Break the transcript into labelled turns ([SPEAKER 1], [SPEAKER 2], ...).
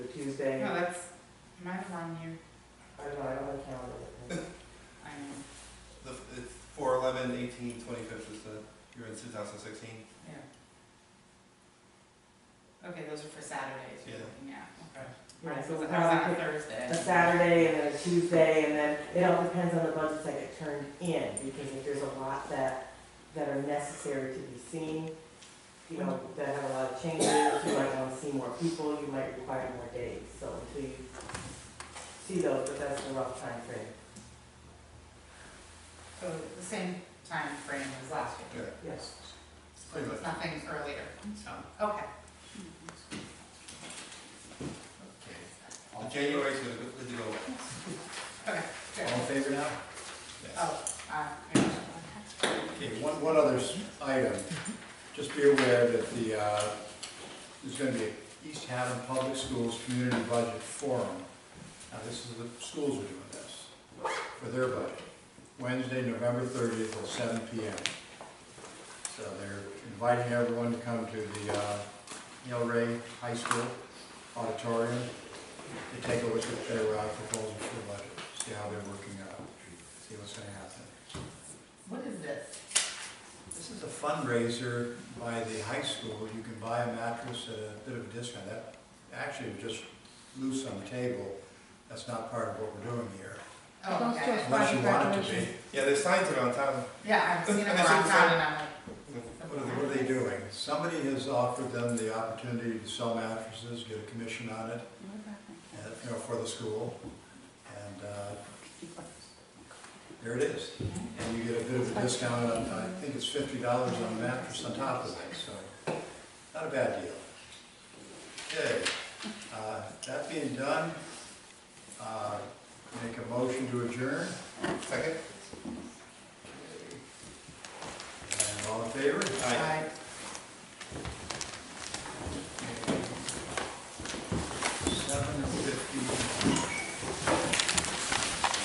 [SPEAKER 1] Tuesday,
[SPEAKER 2] No, that's, mine's on here,
[SPEAKER 1] I don't know, I don't have a calendar with me.
[SPEAKER 2] I know,
[SPEAKER 3] The, it's four eleven eighteen twenty-fifth is the, you're in two thousand sixteen?
[SPEAKER 2] yeah. Okay, those are for Saturdays, you're
[SPEAKER 3] Yeah.
[SPEAKER 2] looking at, okay.
[SPEAKER 1] Right,
[SPEAKER 2] Mine
[SPEAKER 1] so
[SPEAKER 2] was
[SPEAKER 1] we
[SPEAKER 2] I was on
[SPEAKER 1] probably
[SPEAKER 2] a
[SPEAKER 1] pick
[SPEAKER 2] Thursday.
[SPEAKER 1] a Saturday and then a Tuesday, and then it all depends on the budgets that get turned in, because if there's a lot that, that are necessary to be seen, you know, that have a lot of changes, you might wanna see more people, you might require more days, so until you see those, but that's the rough timeframe.
[SPEAKER 2] So the same time frame as last year.
[SPEAKER 3] Yeah,
[SPEAKER 1] Yes.
[SPEAKER 3] it's pretty much.
[SPEAKER 2] Nothing earlier, so, okay.
[SPEAKER 3] The January's gonna, go- is gonna go away.
[SPEAKER 2] Okay, good.
[SPEAKER 4] All in favor now?
[SPEAKER 3] Yes.
[SPEAKER 2] Oh, uh, yeah.
[SPEAKER 4] Okay, one, one other s- item, just be aware that the, uh, there's gonna be a East Haven Public Schools Community Budget Forum. Now, this is, the schools are doing this for their budget, Wednesday, November thirtieth at seven P M. So they're inviting everyone to come to the, uh, Neil Ray High School auditorium to take a look at their, uh, proposals for the budget, see how they're working out, see what's gonna happen.
[SPEAKER 2] What is this?
[SPEAKER 4] This is a fundraiser by the high school. You can buy a mattress at a bit of a discount. That actually was just loose on the table. That's not part of what we're doing here.
[SPEAKER 2] Oh, okay.
[SPEAKER 4] Unless you want it to be.
[SPEAKER 3] Yeah, there's signs around town.
[SPEAKER 2] Yeah, I've seen it
[SPEAKER 3] I
[SPEAKER 2] around
[SPEAKER 3] said the
[SPEAKER 2] town
[SPEAKER 3] same.
[SPEAKER 2] and I'm like,
[SPEAKER 4] What are they, what are they doing? Somebody has offered them the opportunity to sell mattresses, get a commission on it, and, you know, for the school. And, uh, there it is. And you get a bit of a discount on, I think it's fifty dollars on a mattress on top of it, so not a bad deal. Okay, uh, that being done, uh, make a motion to adjourn.
[SPEAKER 3] Second?
[SPEAKER 4] And all in favor?
[SPEAKER 3] Aye.
[SPEAKER 2] I-